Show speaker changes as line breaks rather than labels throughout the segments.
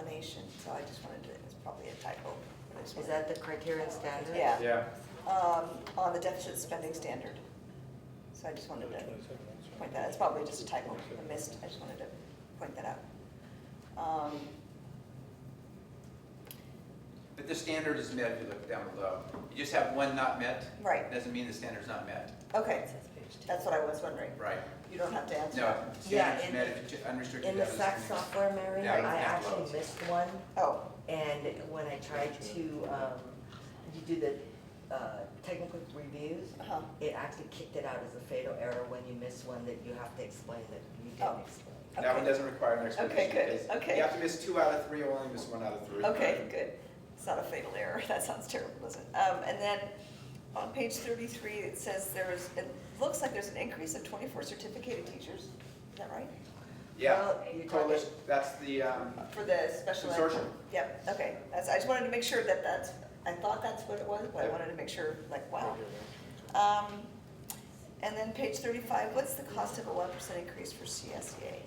so I just wanted to, it's probably a typo. but I just
Is
wanted-
that the criterion standard?
Yeah.
Yeah,
Um, on the deficit spending standard. So I just wanted to point that, it's probably just a typo, I missed, I just wanted to point that out. Um,
But the standard is met if you look down below. You just have one not met.
Right.
Doesn't mean the standard's not met,
Okay, that's what I was wondering.
right?
You don't have to answer.
No,
Yeah,
standard's
in-
met if you ju- unrestricted.
In the
deficit
SAC
spending.
software, Mary,
Yeah, I don't
I
have
actually
those.
missed one,
Oh,
and when I tried to, um, you do the, uh, technical reviews,
uh-huh,
it actually kicked it out as a fatal error when you miss one that you have to explain that you
Oh.
didn't explain.
That one
Okay.
doesn't require an explanation.
good,
It's-
okay.
You have to miss two out of three, or only miss one out of three.
okay, good. It's not a fatal error, that sounds terrible, doesn't it? Um, and then on page thirty-three, it says there is, it looks like there's an increase of twenty-four certificated teachers, is that right?
Yeah,
Well, you're talking,
coalition, that's the, um,
For the special ed?
Consortium.
Yep, okay, that's, I just wanted to make sure that that's, I thought that's what it was, but I wanted to make sure, like, wow. Um, and then page thirty-five, what's the cost of a one percent increase for E CSEA?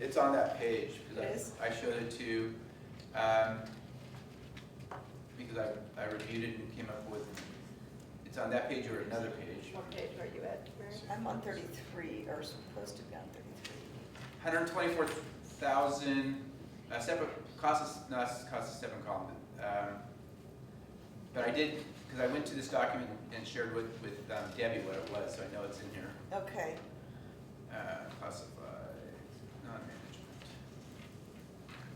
It's on that page,
It is?
because I, I showed it to, um, because I, I reviewed it and came up with, it's on that page or another page.
What page are you at, I'm on thirty-three, or supposed to be on thirty-three.
Hundred and twenty-four thousand, uh, separate, cost is, no, it's cost is seven column. um, But I did, because I went to this document and shared with, with um, Debbie what it was, so I know it's in here.
Okay,
Uh, classified, non-management.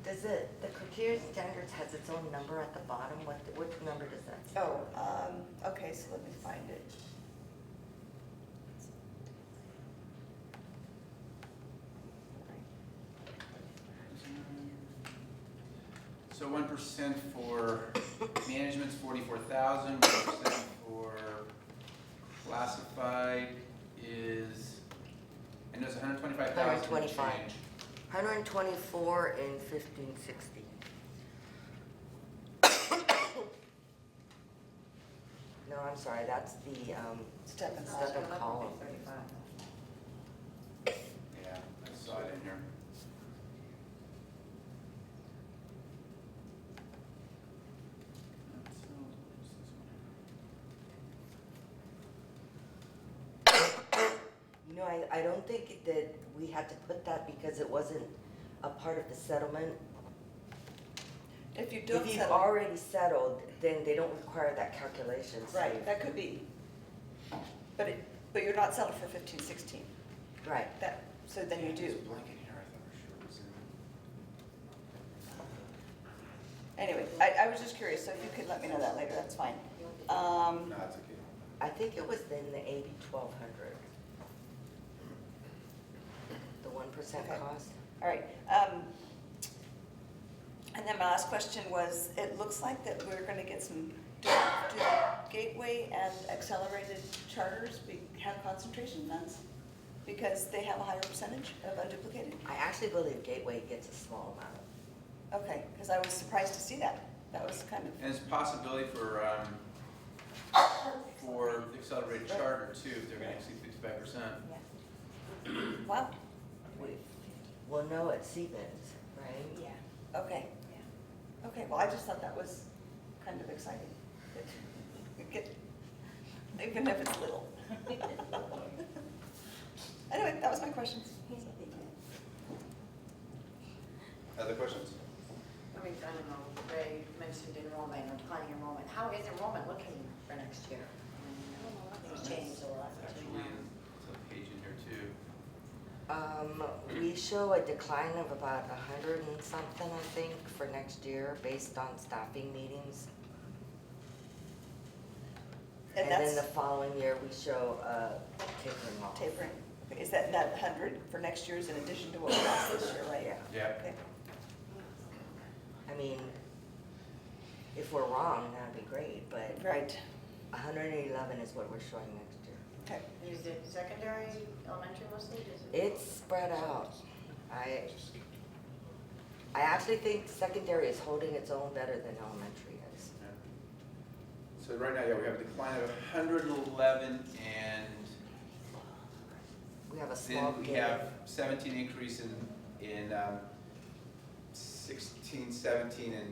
does it, the criterion standards has its own number at the bottom, what, what number does that? say?
oh, um, okay, so let me find it.
So one percent for management's forty-four thousand. One percent for classified is, I know it's hundred twenty-five thousand change.
125. Hundred and twenty-four and fifteen sixty. No, I'm sorry, that's the, um,
Step and
Step and column.
Yeah, I saw it in here. uh,
no, I, I don't think that we had to put that because it wasn't a part of the settlement.
If you don't
If you've
settle,
already settled, then they don't require that calculation, so.
right, that could be. But it, but you're not settled for fifteen, sixteen,
Right,
that, so then you
There's
do.
a blanket here, I thought for sure it was in there.
Anyway, I, I was just curious, so if you could let me know that later, that's fine. Um,
No, it's okay.
I think it was in the eighty, twelve hundred. The one percent
Okay.
cost.
all right. Um, and then my last question was, it looks like that we're gonna get some, do, do Gateway and accelerated charters be, have concentration funds? Because they have a higher percentage of unduplicated?
I actually believe Gateway gets a small amount.
Okay, because I was surprised to see that. That was kind of,
And it's a possibility for, um, for the accelerated charter too, if they're gonna exceed fifty-five percent.
yeah. Wow,
Well, no, at Siemens, right?
Yeah.
okay. Okay, well, I just thought that was kind of exciting. You get- Even if it's little. Anyway, that was my question.
Other questions?
I mean, I don't know, Ray mentioned enrollment or declining enrollment. How is enrollment looking for next year? I mean, Things changed a lot between
Actually,
now.
it's a page in here too.
Um, we show a decline of about a hundred and something, I think, for next year, based on staffing meetings.
And
And then
that's
the following year, we show a tapering off.
tapering. Is that, that hundred for next year is in addition to what we lost this year, right?
Yeah,
Yeah,
Okay,
I mean, if we're wrong, that'd be great, but
right,
hundred and eleven is what we're showing next year.
okay.
Is it secondary, elementary mostly? Is it-
It's spread out. I, I actually think secondary is holding its own better than elementary is.
yeah. So right now, yeah, we have a decline of hundred and eleven and
We have a small
Then we
gap.
have seventeen increase in, in um, sixteen, seventeen, and